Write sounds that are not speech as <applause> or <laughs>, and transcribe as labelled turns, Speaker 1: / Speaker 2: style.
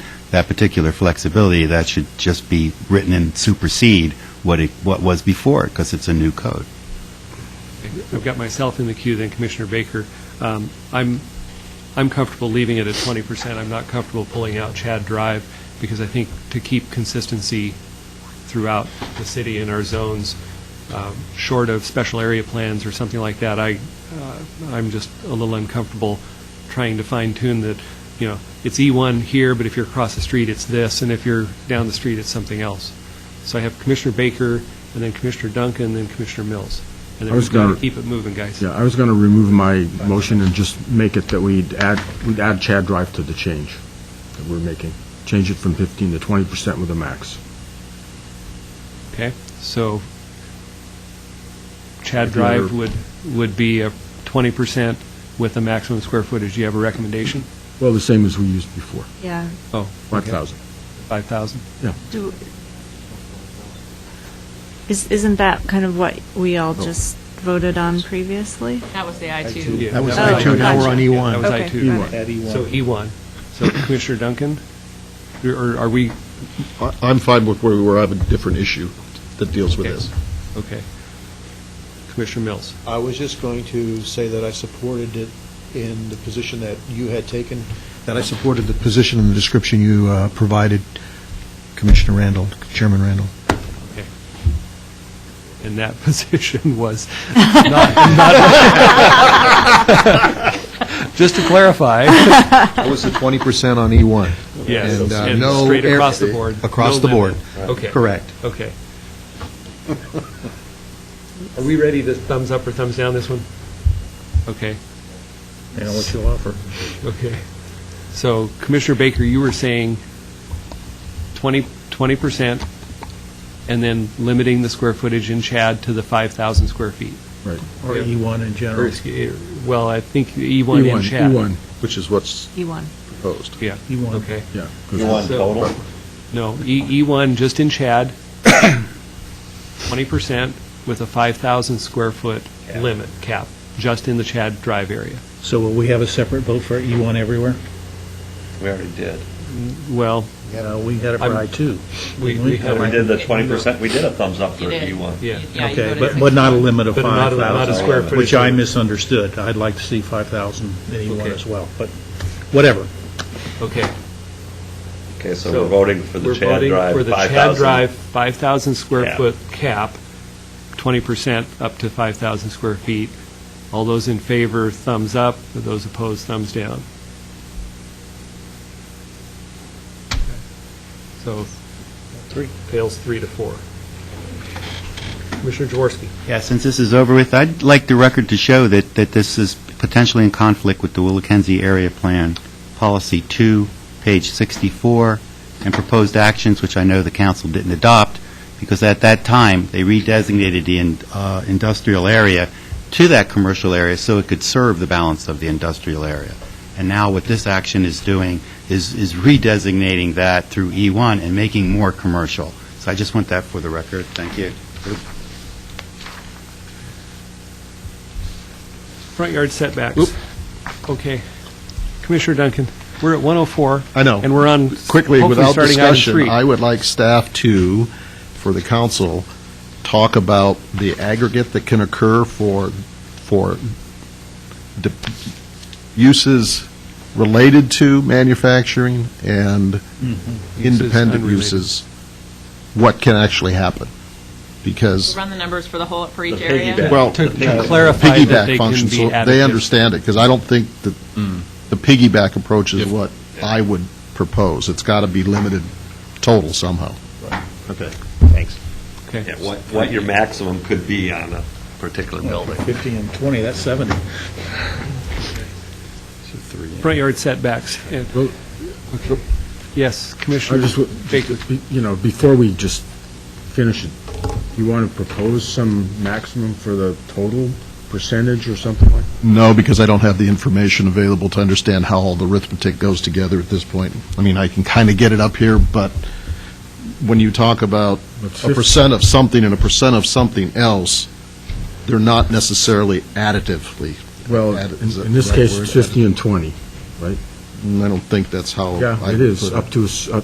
Speaker 1: that particular flexibility, that should just be written and supersede what it, what was before, because it's a new code.
Speaker 2: I've got myself in the queue, then Commissioner Baker. Um, I'm, I'm comfortable leaving it at 20%. I'm not comfortable pulling out Chad Drive, because I think to keep consistency throughout the city and our zones, um, short of special area plans or something like that, I, uh, I'm just a little uncomfortable trying to fine tune that, you know, it's E1 here, but if you're across the street, it's this, and if you're down the street, it's something else. So I have Commissioner Baker, and then Commissioner Duncan, and then Commissioner Mills. And
Speaker 3: I
Speaker 2: then
Speaker 3: was
Speaker 2: we've got
Speaker 3: gonna-
Speaker 2: to keep it moving, guys.
Speaker 3: Yeah, I was going to remove my motion and just make it that we'd add, we'd add Chad Drive to the change that we're making. Change it from 15 to 20% with a max.
Speaker 2: Okay, so Chad
Speaker 3: If you were-
Speaker 2: Drive would, would be a 20% with a maximum square footage. Do you have a recommendation?
Speaker 3: Well, the same as we used before,
Speaker 4: Yeah.
Speaker 2: Oh. okay.
Speaker 3: 5,000.
Speaker 2: 5,000?
Speaker 4: Do, is, isn't that kind of what we all just voted on previously?
Speaker 5: That was the I-2.
Speaker 2: Yeah,
Speaker 6: That was
Speaker 4: I two, now we're on
Speaker 2: Yeah, That was
Speaker 4: Okay,
Speaker 2: I two.
Speaker 4: got it.
Speaker 2: So E1. So Commissioner Duncan, or are we,
Speaker 6: I- I'm fine with where we were, I have a different issue that deals with
Speaker 2: Okay.
Speaker 6: this.
Speaker 2: okay. Commissioner Mills,
Speaker 7: I was just going to say that I supported it in the position that you had taken, that I supported the position and the description you uh, provided, Commissioner Randall, Chairman Randall.
Speaker 2: and that <laughs> position was not, not- just to clarify,
Speaker 8: That was the 20% on E1.
Speaker 2: yes,
Speaker 8: And, uh,
Speaker 2: and
Speaker 8: no
Speaker 2: straight
Speaker 8: air-
Speaker 2: across the board.
Speaker 8: across
Speaker 2: no
Speaker 8: the board.
Speaker 2: limit. Okay.
Speaker 8: Correct.
Speaker 2: Okay. Are we ready to thumbs up or thumbs down this one? Okay,
Speaker 8: And what you offer.
Speaker 2: okay. So Commissioner Baker, you were saying 20, 20%, and then limiting the square footage in Chad to the 5,000 square feet.
Speaker 9: Or
Speaker 8: E
Speaker 9: E1 E in
Speaker 2: Or,
Speaker 9: general.
Speaker 2: excuse- Well, I think
Speaker 3: E
Speaker 2: E1 in
Speaker 8: E
Speaker 2: Chad.
Speaker 3: E1,
Speaker 6: Which is what's
Speaker 4: E1.
Speaker 6: proposed.
Speaker 2: Yeah,
Speaker 9: E1.
Speaker 2: okay.
Speaker 3: yeah.
Speaker 2: So- No, E- E1, just in Chad, <coughs> 20% with a 5,000 square foot limit cap, just in the Chad Drive area.
Speaker 9: So will we have a separate vote for E1 everywhere?
Speaker 10: We already did.
Speaker 2: Well,
Speaker 9: You know, Uh, we had it for
Speaker 2: I'm-
Speaker 9: I-2.
Speaker 2: we
Speaker 9: didn't we?
Speaker 2: we had
Speaker 10: We
Speaker 2: a...
Speaker 10: did the twenty percent, we did a thumbs up for
Speaker 5: You did.
Speaker 10: E one.
Speaker 2: Yeah.
Speaker 5: Yeah, you
Speaker 9: Okay,
Speaker 5: voted
Speaker 9: but,
Speaker 5: six-
Speaker 9: but not a limit of
Speaker 2: But not a- not a square
Speaker 9: 5,000,
Speaker 2: footage
Speaker 9: which I
Speaker 2: limit.
Speaker 9: misunderstood. I'd like to see 5,000 in E1
Speaker 2: Okay.
Speaker 9: as well, but whatever.
Speaker 2: Okay.
Speaker 10: Okay, so we're voting for the
Speaker 2: We're
Speaker 10: Chad
Speaker 2: voting
Speaker 10: Drive,
Speaker 2: For the
Speaker 10: five
Speaker 2: Chad Drive,
Speaker 10: thousand.
Speaker 2: 5,000 square
Speaker 10: Cap.
Speaker 2: foot cap, 20% up to 5,000 square feet. All those in favor, thumbs up. Those opposed, thumbs down. So, three, fails three to four. Commissioner Jaworski.
Speaker 1: Yeah, since this is over with, I'd like the record to show that, that this is potentially in conflict with the Willackenzie Area Plan, Policy 2, page 64, and proposed actions, which I know the council didn't adopt, because at that time, they redesignated the in- uh, industrial area to that commercial area so it could serve the balance of the industrial area. And now what this action is doing is, is redesignating that through E1 and making more commercial. So I just want that for the record. Thank you.
Speaker 2: Front yard setbacks. Okay. Commissioner Duncan, we're at 104.
Speaker 6: I know.
Speaker 2: And we're on,
Speaker 6: Quickly,
Speaker 2: hopefully
Speaker 6: without
Speaker 2: starting item
Speaker 6: discussion,
Speaker 2: three.
Speaker 6: I would like staff to, for the council, talk about the aggregate that can occur for, for de- uses related to manufacturing and independent
Speaker 2: Mm-hmm. unrelated.
Speaker 6: uses, what can actually happen. Because
Speaker 5: Run the numbers for the whole, for each
Speaker 10: The
Speaker 5: area.
Speaker 10: piggyback.
Speaker 6: Well,
Speaker 2: To
Speaker 6: uh,
Speaker 2: clarify that
Speaker 6: piggyback
Speaker 2: they can
Speaker 6: function,
Speaker 2: be
Speaker 6: so
Speaker 2: additive.
Speaker 6: They understand it, because I don't think that
Speaker 3: Hmm.
Speaker 6: the piggyback approach is what I would propose. It's got to be limited total somehow.
Speaker 8: Okay, thanks.
Speaker 2: Okay.
Speaker 10: Yeah, what, what your maximum could be on a particular building.
Speaker 9: 50 and 20, that's 70.
Speaker 2: Front yard setbacks. And-
Speaker 3: Well-
Speaker 2: Okay. Yes,
Speaker 3: I
Speaker 2: Commissioner
Speaker 3: just, w-
Speaker 2: Baker.
Speaker 3: be- you know, before we just finish it, you want to propose some maximum for the total percentage or something like?
Speaker 6: No, because I don't have the information available to understand how all the arithmetic goes together at this point. I mean, I can kind of get it up here, but when you talk about
Speaker 3: But
Speaker 6: a percent of something and a percent of something else, they're not necessarily additively.
Speaker 3: Well,
Speaker 6: Add- is
Speaker 3: in
Speaker 6: that
Speaker 3: in this
Speaker 6: the right
Speaker 3: case,
Speaker 6: word?
Speaker 3: it's 50 and 20.
Speaker 6: And I don't think that's how. I
Speaker 3: Yeah, it
Speaker 6: would
Speaker 3: is,
Speaker 6: put
Speaker 3: up to, a s- up